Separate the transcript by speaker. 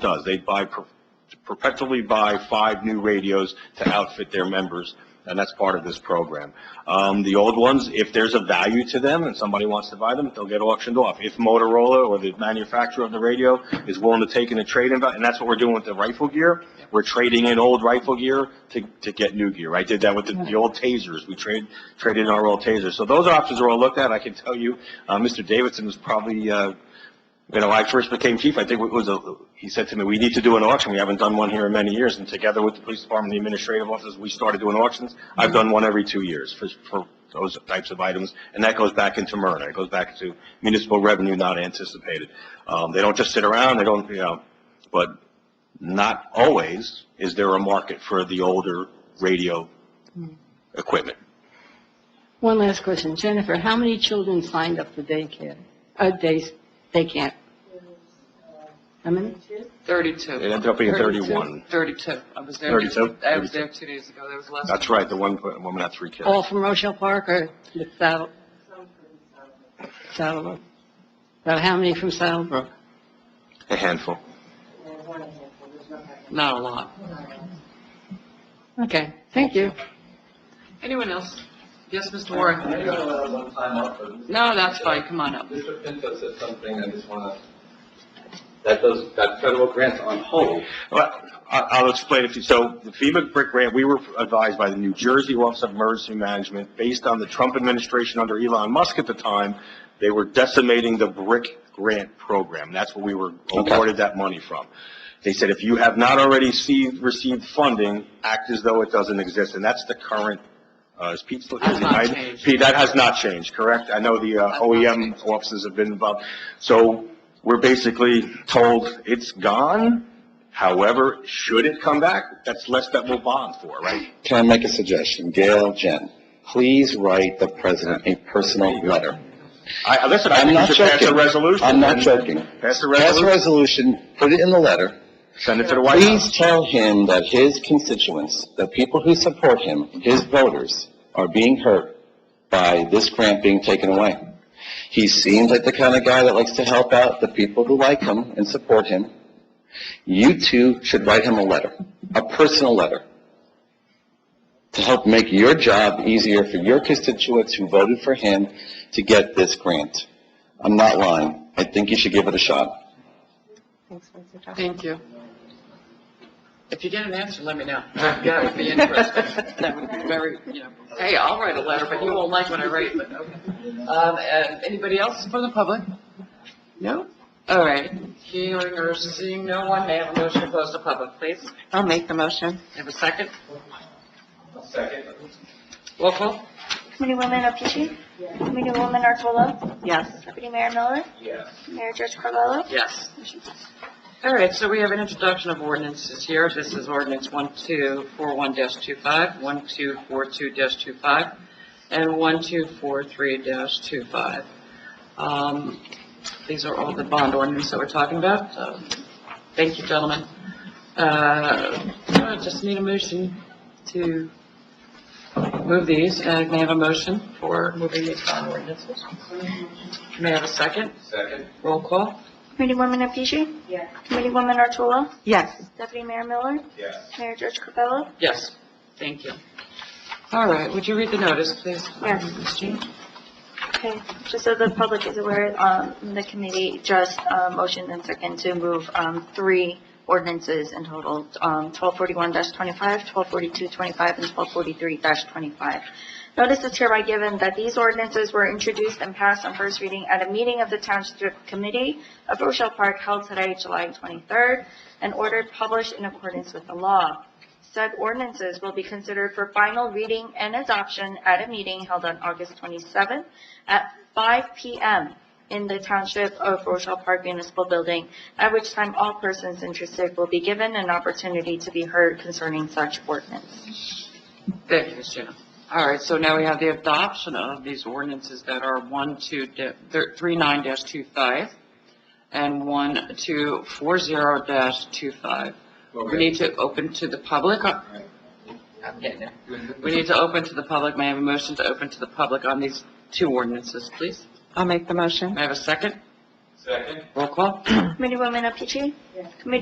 Speaker 1: does. They buy, per- perpetually buy five new radios to outfit their members, and that's part of this program. Um, the old ones, if there's a value to them and somebody wants to buy them, they'll get auctioned off. If Motorola or the manufacturer of the radio is willing to take in a trade-in, va- and that's what we're doing with the rifle gear, we're trading in old rifle gear to, to get new gear. I did that with the, the old tasers. We trade, traded in our old tasers. So those options are all looked at. I can tell you, uh, Mr. Davidson was probably, uh, you know, when I first became chief, I think it was a, he said to me, we need to do an auction. We haven't done one here in many years. And together with the police department, the administrative office, we started doing auctions. I've done one every two years for, for those types of items. And that goes back into Myrna. It goes back to municipal revenue not anticipated. Um, they don't just sit around, they don't, you know, but not always is there a market for the older radio equipment.
Speaker 2: One last question. Jennifer, how many children signed up for daycare, uh, days, day camp? How many?
Speaker 3: 32.
Speaker 1: It ended up being 31.
Speaker 3: 32. I was there.
Speaker 1: 32?
Speaker 3: I was there two days ago. That was last.
Speaker 1: That's right, the one woman had three kids.
Speaker 2: All from Rochelle Park or the Saddle? Saddlebrook. About how many from Saddlebrook?
Speaker 1: A handful.
Speaker 3: Not a lot.
Speaker 2: Okay, thank you.
Speaker 3: Anyone else? Yes, Mr. Warren?
Speaker 4: Maybe I'll allow one time up for this.
Speaker 3: No, that's fine. Come on up.
Speaker 4: Mr. Pinto said something, I just wanna, that those, that federal grants on hold.
Speaker 1: Well, I- I'll explain if you, so the FEMA brick grant, we were advised by the New Jersey Office of Emergency Management, based on the Trump administration under Elon Musk at the time, they were decimating the brick grant program. That's what we were awarded that money from. They said, if you have not already received, received funding, act as though it doesn't exist. And that's the current, uh, is Pete still here?
Speaker 3: Has not changed.
Speaker 1: Pete, that has not changed, correct? I know the uh,
Speaker 3: Has not
Speaker 1: OEM
Speaker 3: changed.
Speaker 1: offices have been involved. So we're basically told it's gone. However, should it come back, that's less that we'll bond for, right?
Speaker 5: Can I make a suggestion? Gail, Jen, please write the president a personal letter.
Speaker 1: I, I- listen, I
Speaker 5: I'm
Speaker 1: think
Speaker 5: not
Speaker 1: you should pass a
Speaker 5: joking.
Speaker 1: resolution.
Speaker 5: I'm not
Speaker 1: and
Speaker 5: joking.
Speaker 1: Pass a
Speaker 5: Pass
Speaker 1: resolution,
Speaker 5: a resolution, put it in the letter.
Speaker 1: send it to the White
Speaker 5: Please
Speaker 1: House.
Speaker 5: tell him that his constituents, the people who support him, his voters, are being hurt by this grant being taken away. He seems like the kind of guy that likes to help out the people who like him and support him. You two should write him a letter, a personal letter, to help make your job easier for your constituents who voted for him to get this grant. I'm not lying. I think you should give it a shot.
Speaker 3: Thank you. If you get an answer, let me know. That would be interesting. That would be very, you know, hey, I'll write a letter, but you won't like what I write, but, okay. Um, and anybody else from the public? No? All right. Hearing or seeing no one, may I have a motion to close the public, please?
Speaker 6: I'll make the motion.
Speaker 3: Have a second?
Speaker 4: Second.
Speaker 3: Roll call?
Speaker 7: Committee Women Apici. Committee Woman Artola.
Speaker 6: Yes.
Speaker 7: Deputy Mayor Miller.
Speaker 4: Yes.
Speaker 7: Mayor George Carvello.
Speaker 3: Yes. All right, so we have an introduction of ordinances here. This is ordinance 1241-25, 1242-25, and 1243-25. Um, These are all the bond ordinances that we're talking about. So, Thank you, gentlemen. Uh, I just need a motion to move these, and may I have a motion for moving these bond ordinances? May I have a second?
Speaker 4: Second.
Speaker 3: Roll call.
Speaker 7: Committee Woman Apici. Yes. Committee Woman Artola.
Speaker 6: Yes.
Speaker 7: Deputy Mayor Miller.
Speaker 4: Yes.
Speaker 7: Mayor George Carvello.
Speaker 3: Yes, thank you. All right, would you read the notice, please?
Speaker 7: Yes.
Speaker 3: Ms. Jean?
Speaker 7: Okay, just so the public is aware, um, the committee just, uh, motioned and second to move, um, three ordinances in total, um, twelve forty-one twenty-five, twelve forty-two twenty-five, and twelve forty-three twenty-five. Notice is hereby given that these ordinances were introduced and passed on first reading at a meeting of the Township Committee of Rochelle Park held today, July twenty-third, and ordered published in accordance with the law. Said ordinances will be considered for final reading and adoption at a meeting held on August 27th at 5 PM in the Township of Rochelle Park Municipal Building, at which time all persons interested will be given an opportunity to be heard concerning such ordinance.
Speaker 3: Thank you, Ms. Jean. All right, so now we have the adoption of these ordinances that are one, two, da- thir- three, nine dash two five, and one, two, four, zero dash two five. We need to open to the public. on- I'm getting there. We need to open to the public. May I have a motion to open to the public on these two ordinances, please?
Speaker 6: I'll make the motion.
Speaker 3: May I have a second?
Speaker 4: Second.
Speaker 3: Roll call?
Speaker 7: Committee Woman Apici? Committee